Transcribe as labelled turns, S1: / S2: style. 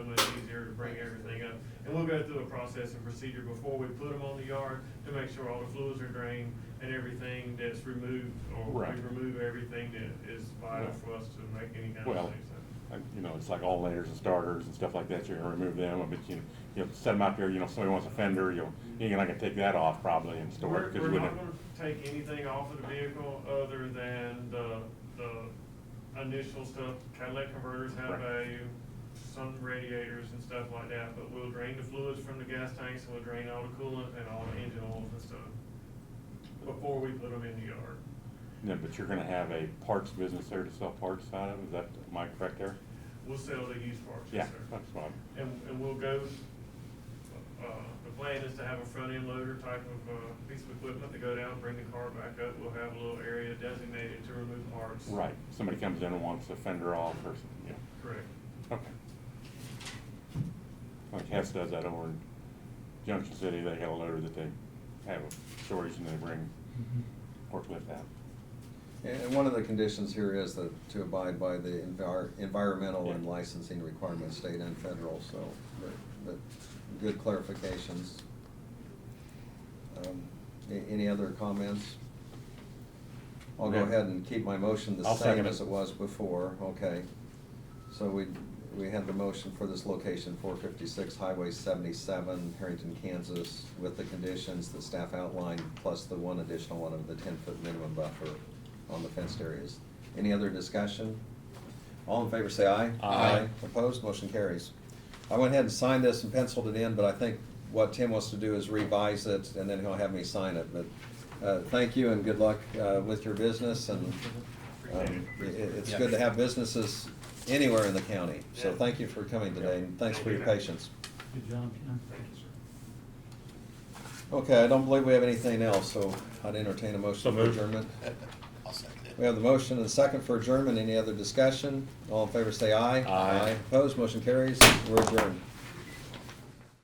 S1: bring everything up. And we'll go through a process and procedure before we put them on the yard to make sure all the fluids are drained and everything that's removed, or
S2: Right.
S1: we remove everything that is vital
S2: Right.
S1: for us to make any kind of
S2: Well,
S1: thing, so.
S2: like, you know, it's like all layers and starters and stuff like that, you're gonna remove them, but you, you'll set them out there, you know, if somebody wants a fender, you'll, you're not gonna take that off probably and store
S1: We're,
S2: it. 'cause
S1: we're
S2: you
S1: not
S2: wouldn't-
S1: gonna take anything off of the vehicle other than the, the initial stuff. Cadillac converters have
S2: Right.
S1: value, some radiators and stuff like that, but we'll drain the fluids from the gas tanks, and we'll drain all the coolant and all the engine oils and stuff before we put them in the yard.
S2: Yeah, but you're gonna have a parts business there to sell parts out of, is that, am I correct there?
S1: We'll sell the used parts,
S2: Yeah,
S1: yes, sir.
S2: that's fine.
S1: And, and we'll go, uh, the plan is to have a front end loader type of, uh, piece of equipment to go down, bring the car back up. We'll have a little area designated to remove parts.
S2: Right, somebody comes in and wants a fender off or, some- yeah,
S1: Correct.
S2: okay. Like Hess does that over in Junction City, they got a loader that they have a storage and they bring forklift out.
S3: And and one of the conditions here is that to abide by the envir- environmental and
S2: Yeah.
S3: licensing requirements, state and federal, so, but, but good clarifications. Um, a- Any other comments? I'll go
S2: Yeah.
S3: ahead and keep my motion the
S2: I'll
S3: same
S2: second it.
S3: as it was before, okay? So we, we had the motion for this location, four fifty-six Highway seventy-seven, Harrington, Kansas, with the conditions that staff outlined, plus the one additional one of the ten-foot minimum buffer on the fenced areas. Any other discussion? All in favor, say aye.
S2: Aye.
S3: Opposed, motion carries. I went ahead and signed this and penciled it in, but I think what Tim wants to do is revise it, and then he'll have me sign it, but, uh, thank you and good luck, uh, with your business, and um, i- i- It's good to have businesses anywhere in the county, so
S1: Yeah.
S3: thank you for coming today, and thanks for your patience.
S4: Good job, Ken.
S1: Thank you, sir.
S3: Okay, I don't believe we have anything else, so I'd entertain a motion for adjournment.
S5: I'll second it.
S3: We have the motion and second for adjournment, any other discussion? All in favor say aye.
S2: Aye.
S3: Opposed, motion carries, we're adjourned.